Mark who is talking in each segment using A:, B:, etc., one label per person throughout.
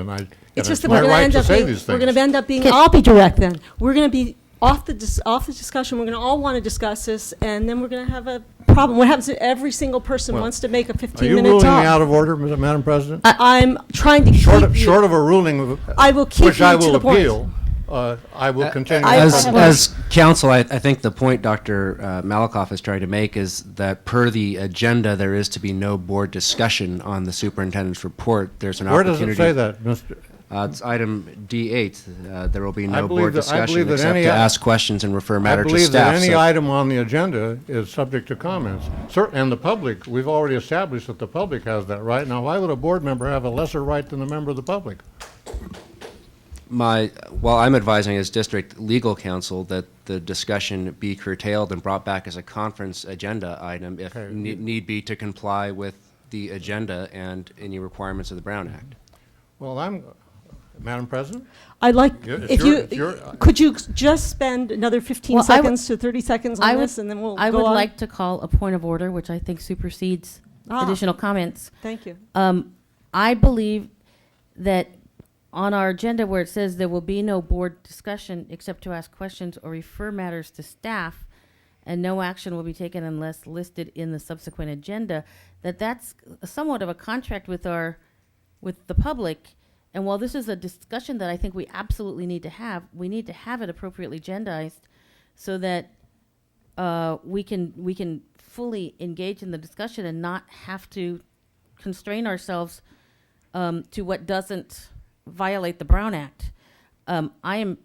A: And I, and
B: It's just
A: it's
B: that we're
A: my
B: going to
A: right
B: end
A: to
B: up
A: say
B: being,
A: these
B: we're going to
A: things.
B: end up being,
C: Can-
B: I'll be direct then. We're going to be off the, dis- off the discussion, we're going to all want to discuss this, and then we're going to have a problem. What happens if every single person
A: Well,
B: wants to make a
A: Are you
B: 15-minute
A: ruling me out
B: talk?
A: of order, Ms- Madam President?
B: I'm trying to
A: Short of,
B: keep
A: short
B: you.
A: of a ruling, of-
B: I will keep
A: which
B: you
A: I
B: to
A: will
B: the point.
A: appeal, uh, I will continue.
B: I-
D: As,
A: from-
B: I-
D: as counsel, I, I think the point Dr. Uh, Malakoff is trying to make is that per the agenda, there is to be no board discussion on the superintendent's report. There's an
A: Where does
D: opportunity.
A: it say that, Mr.?
D: Uh, it's item D8. Uh, there will be
A: I
D: no
A: believe
D: board
A: that- I
D: discussion
A: believe that
D: except
A: any-
D: to ask questions and refer
A: I
D: matter to
A: believe that
D: staff.
A: any
D: So-
A: item on the agenda is subject to comments. Cer- And the public, we've already established that the public has that right. Now, why would a board member have a lesser right than a member of the public?
D: My, while I'm advising as district legal counsel that the discussion be curtailed and brought back as a conference agenda item if
A: Okay.
D: ne- need be to comply with the agenda and any requirements of the Brown Act.
A: Well, I'm, Madam President?
B: I'd like,
A: Yeah, it's
B: if
A: your-
B: you,
A: it's your-
B: could you just spend another 15
C: Well, I would-
B: seconds to 30 seconds
C: I
B: on
C: would-
B: this, and then we'll go on?
C: I would like to call a point of order, which I think supersedes
B: Ah.
C: additional comments.
B: Thank you.
C: Um, I believe that on our agenda where it says there will be no board discussion except to ask questions or refer matters to staff, and no action will be taken unless listed in the subsequent agenda, that that's somewhat of a contract with our, with the public. And while this is a discussion that I think we absolutely need to have, we need to have it appropriately agendized so that uh, we can, we can fully engage in the discussion and not have to constrain ourselves um, to what doesn't violate the Brown Act. Um, I am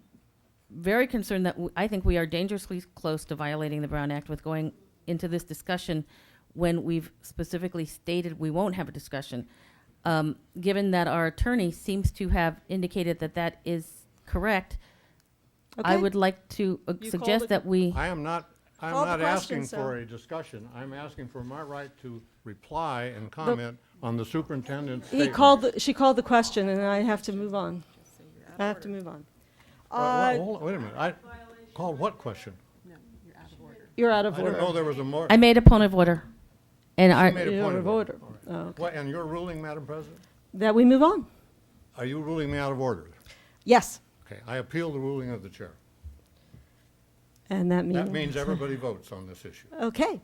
C: very concerned that w- I think we are dangerously close to violating the Brown Act with going into this discussion when we've specifically stated we won't have a discussion. Um, given that our attorney seems to have indicated that that is correct, I
B: Okay.
C: would like to uh,
B: You called it-
C: suggest that we.
A: I am not, I'm
B: Call the
A: not asking
B: question,
A: for
B: sir.
A: a discussion. I'm asking for my right to reply and comment on the superintendent's
B: He
A: statement.
B: called, the- she called the question, and I have to move on. I have to move on.
A: Wait,
B: Uh,
A: hold- Wait a minute, I, called what question?
B: You're out of
A: I didn't know
B: order.
A: there was a more,
C: I made a point of order, and our,
A: made a
B: You're
A: point
B: out
A: of
B: of
A: order.
B: order. Oh, okay.
A: What- and you're ruling, Madam President?
B: That we move on?
A: Are you ruling me out of order?
B: Yes.
A: Okay, I appeal the ruling of the chair.
B: And that means.
A: That means everybody votes on this issue.
B: Okay.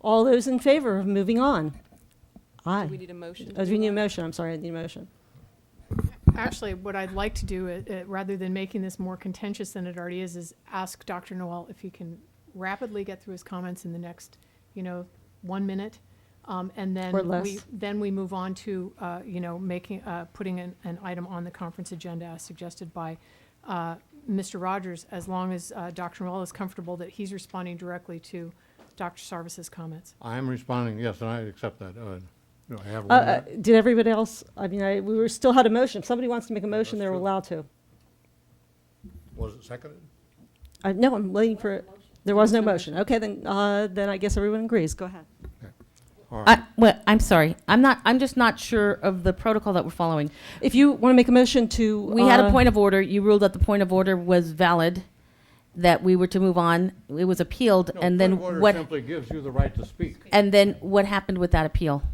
B: All those in favor of moving on? Aye.
E: We need a motion.
B: Oh, do we need a motion? I'm sorry, I need a motion.
F: Actually, what I'd like to do, uh, uh, rather than making this more contentious than it already is, is ask Dr. Noel if he can rapidly get through his comments in the next, you know, one minute. Um, and then
B: Or
F: we,
B: less.
F: then we move on to, uh, you know, making, uh, putting an, an item on the conference agenda as suggested by, uh, Mr. Rogers, as long as, uh, Dr. Noel is comfortable that he's responding directly to Dr. Sarvis's comments.
A: I am responding, yes, and I accept that. Uh, Do I have
B: Uh,
A: one
B: uh,
A: minute?
B: Did everybody else, I mean, I- we were, still had a motion. If somebody wants to make a motion,
A: that's
B: they're
A: true.
B: allowed to.
A: Was it seconded?
B: Uh, No, I'm waiting for, there was no motion. Okay, then, uh, then I guess everyone agrees. Go ahead.
A: All right.
C: I, well, I'm sorry. I'm not. I'm just not sure of the protocol that we're following.
B: If you want to make a motion to.
C: We had
B: uh,
C: a point of order. You ruled that the point of order was valid, that we were to move on. It was appealed,
A: No,
C: and then
A: point of order
C: what?
A: simply gives you the right to speak.
C: And then what happened with that appeal?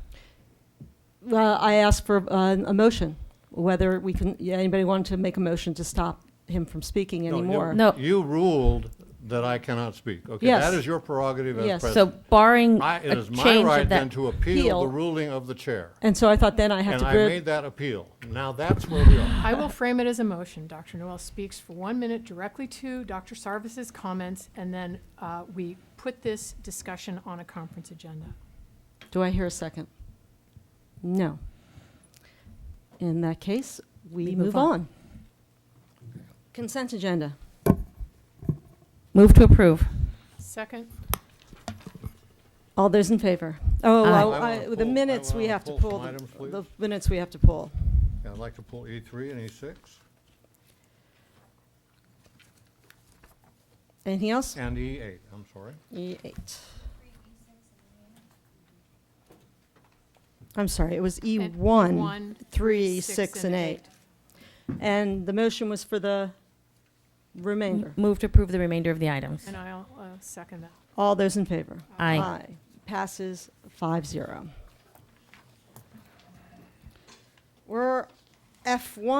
B: Well, I asked for uh, a motion, whether we can, yeah, anybody wanted to make a motion to stop him from speaking
A: No, you-
B: anymore.
C: No.
A: You ruled that I cannot speak. Okay,
B: Yes.
A: that is your prerogative as
B: Yes. So-
C: So
A: president.
C: barring
A: I- It
C: a
A: is my
C: change
A: right
C: of
A: then
C: that,
A: to appeal the
B: appeal.
A: ruling of the chair.
B: And so I thought then I had
A: And
B: to.
A: I
B: grid-
A: made that appeal. Now that's where we are.
F: I will frame it as a motion. Dr. Noel speaks for one minute directly to Dr. Sarvis's comments, and then uh, we put this discussion on a conference agenda.
B: Do I hear a second? No. In that case, we move on. Consent agenda.
C: move to approve.
F: Second,
B: All those in favor? Oh,
C: Aye.
B: well,
A: I
B: I-
A: wanna
B: the
A: pull- I
B: minutes we
A: wanna
B: have to
A: pull some
B: pull, the-
A: items, please.
B: the minutes we have to pull.
A: Yeah, I'd like to pull E3 and E E6
B: Anything else? E
A: and E8, I'm sorry.
B: E8. I'm sorry, it was E E1,
F: one,
B: 3, 6, and 8. And the motion was for the remainder.
C: Move to approve the remainder of the items.
F: and I'll uh, second that.
B: All those in favor?
C: Aye.
B: Passes five zero. We're F1